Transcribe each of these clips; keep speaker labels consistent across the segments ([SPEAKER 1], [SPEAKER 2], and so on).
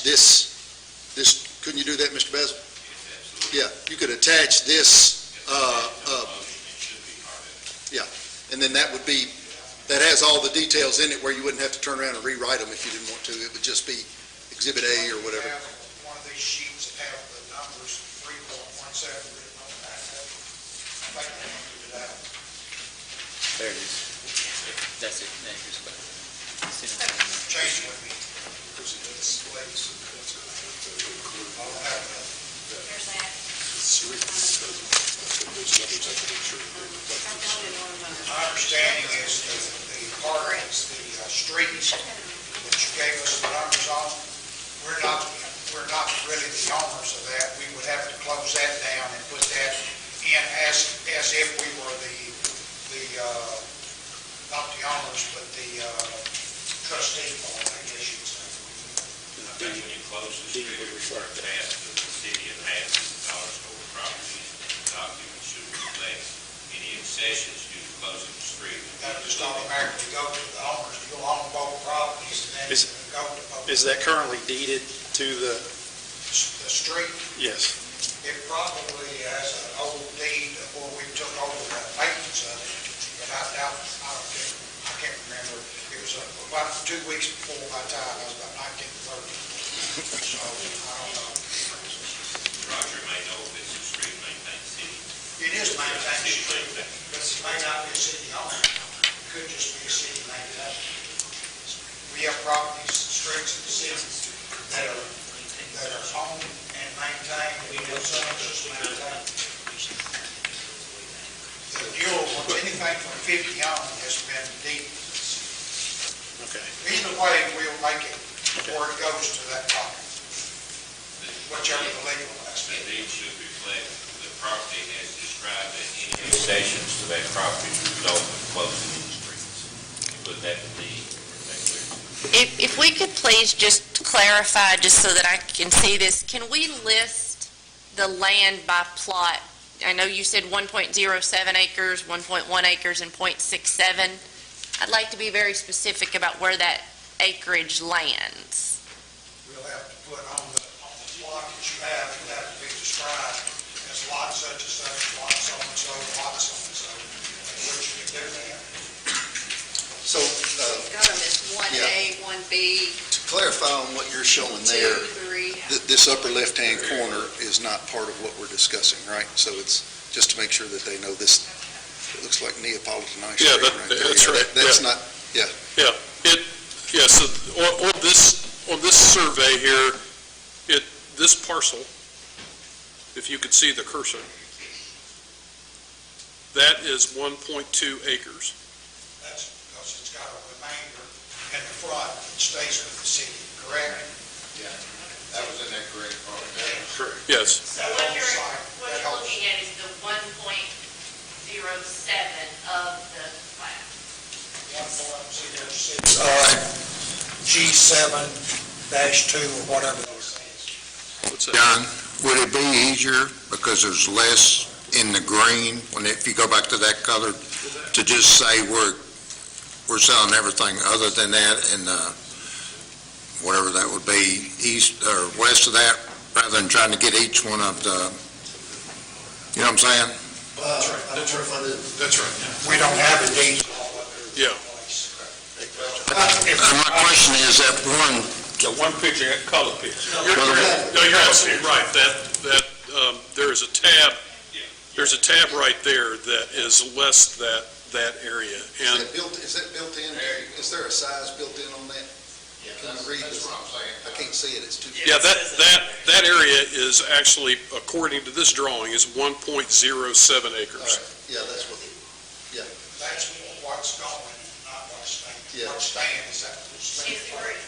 [SPEAKER 1] attach this, this, couldn't you do that, Mr. Basil? Yeah, you could attach this, uh, uh, yeah, and then that would be, that has all the details in it where you wouldn't have to turn around and rewrite them if you didn't want to. It would just be Exhibit A or whatever.
[SPEAKER 2] Have One of these sheets that have the numbers three point one seven written on the back of it. I think we can do that.
[SPEAKER 3] There it is. That's it, now here's what.
[SPEAKER 2] Change would be, because it displays, that's going to include. I'll have that.
[SPEAKER 4] There's that. I've done it on my-
[SPEAKER 2] My understanding is that the part, is the uh, streets that you gave us the numbers on, we're not, we're not really the owners of that. We would have to close that down and put that in as, as if we were the, the, uh, not the owners, but the uh, trustee board, I guess you'd say.
[SPEAKER 5] I think when you close the street, you refer to half to the city of Madison, dollar store property, documents should reflect any accessions due to closing the street.
[SPEAKER 2] That would just automatically go to the owners. You'll own both properties and then
[SPEAKER 6] Is-
[SPEAKER 2] go to both.
[SPEAKER 6] Is that currently deeded to the,
[SPEAKER 2] The street
[SPEAKER 6] yes,
[SPEAKER 2] It probably has an old deed of where we took over the maintenance of it, but I doubt, I don't think, I can't remember. It was about two weeks before my time, I was about nineteen thirty. So I don't know.
[SPEAKER 5] Roger may know if it's a street maintained city.
[SPEAKER 2] It is maintained,
[SPEAKER 5] City
[SPEAKER 2] street,
[SPEAKER 5] maintained.
[SPEAKER 2] but it may not be a city owned. It could just be a city maintained. We have properties, streets in the city that are, that are owned and maintained, we have some just maintained. The newer ones, anything from fifty on has been deep.
[SPEAKER 6] okay.
[SPEAKER 2] Either way, we'll make it, or it goes to that property, whichever the legal
[SPEAKER 5] The
[SPEAKER 2] aspect.
[SPEAKER 5] deed should reflect the property as described and any accessions to that property result from closing the streets. You put that in the, that's clear.
[SPEAKER 7] If, if we could please just clarify, just so that I can see this, can we list the land by plot? I know you said 1.07 acres, 1.1 acres, and .67. I'd like to be very specific about where that acreage lands.
[SPEAKER 2] We'll have to put on the, on the plot that you have, it'll have to be described as lot such and such, lot so and so, lot so and so, which you can do that.
[SPEAKER 1] So, uh,
[SPEAKER 4] Got them as one A,
[SPEAKER 1] Yeah.
[SPEAKER 4] one B,
[SPEAKER 1] to clarify on what you're showing
[SPEAKER 4] two,
[SPEAKER 1] there,
[SPEAKER 4] three.
[SPEAKER 1] th- this upper left-hand corner is not part of what we're discussing, right? So it's, just to make sure that they know this, it looks like Neapolitan ice
[SPEAKER 8] Yeah,
[SPEAKER 1] cream right
[SPEAKER 8] that-
[SPEAKER 1] there.
[SPEAKER 8] that's
[SPEAKER 1] Yeah,
[SPEAKER 8] right,
[SPEAKER 1] that- That's
[SPEAKER 8] yeah.
[SPEAKER 1] not,
[SPEAKER 8] Yeah, so on, on this, on this survey here, it, this parcel, if you could see the cursor, that is 1.2 acres.
[SPEAKER 2] That's because it's got a remainder in the front that stays with the city, correct?
[SPEAKER 9] That was in that gray part.
[SPEAKER 8] Yes,
[SPEAKER 7] So
[SPEAKER 2] what you're- what you're looking
[SPEAKER 7] at is the 1.07 of the plat.
[SPEAKER 2] One point zero six. G seven dash two or whatever those things.
[SPEAKER 8] what's that?
[SPEAKER 9] Don, would it be easier, because there's less in the green, when, if you go back to that color, to just say we're, we're selling everything other than that in the, whatever that would be, east or west of that, rather than trying to get each one of the, you know what I'm saying?
[SPEAKER 2] That's right, that's
[SPEAKER 8] Uh, That's right.
[SPEAKER 2] We don't have a deed. in
[SPEAKER 8] Yeah. Uh,
[SPEAKER 2] place.
[SPEAKER 9] And uh, my question is that one,
[SPEAKER 5] The one picture, that color picture.
[SPEAKER 8] You're- you're- No, you're absolutely right, that, that, um, there is a tab, there's a tab right there that is less that, that area.
[SPEAKER 1] is
[SPEAKER 8] And
[SPEAKER 1] that built, is that built in? Is there a size built in on that? Can you read this? I can't see it, it's too.
[SPEAKER 8] Yeah, that, that, that area is actually, according to this drawing, is 1.07
[SPEAKER 1] All
[SPEAKER 8] acres.
[SPEAKER 1] right, yeah, that's what,
[SPEAKER 2] That's what's going, not what's staying.
[SPEAKER 1] Yeah.
[SPEAKER 2] What's staying is that. Correct.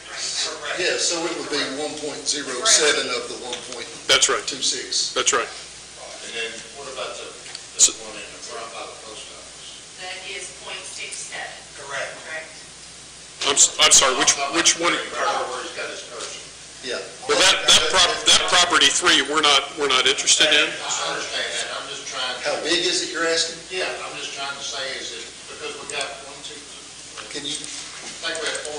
[SPEAKER 1] yeah, so it would be one point zero seven of the one point
[SPEAKER 8] That's right,
[SPEAKER 1] two six.
[SPEAKER 8] that's right.
[SPEAKER 9] and then what about the,
[SPEAKER 8] So-
[SPEAKER 9] one in the front by the post office?
[SPEAKER 7] That is .67,
[SPEAKER 2] Correct.
[SPEAKER 7] correct?
[SPEAKER 8] I'm, s- I'm sorry, which, which one?
[SPEAKER 9] Where he's got his person.
[SPEAKER 1] Yeah.
[SPEAKER 8] Well, that, that prop, that property three, we're not, we're not interested
[SPEAKER 9] I
[SPEAKER 8] in.
[SPEAKER 9] understand that, I'm just trying
[SPEAKER 1] How big is it you're asking?
[SPEAKER 9] Yeah, I'm just trying to say is that, because we got one, two,
[SPEAKER 1] Can you,
[SPEAKER 9] I think we have four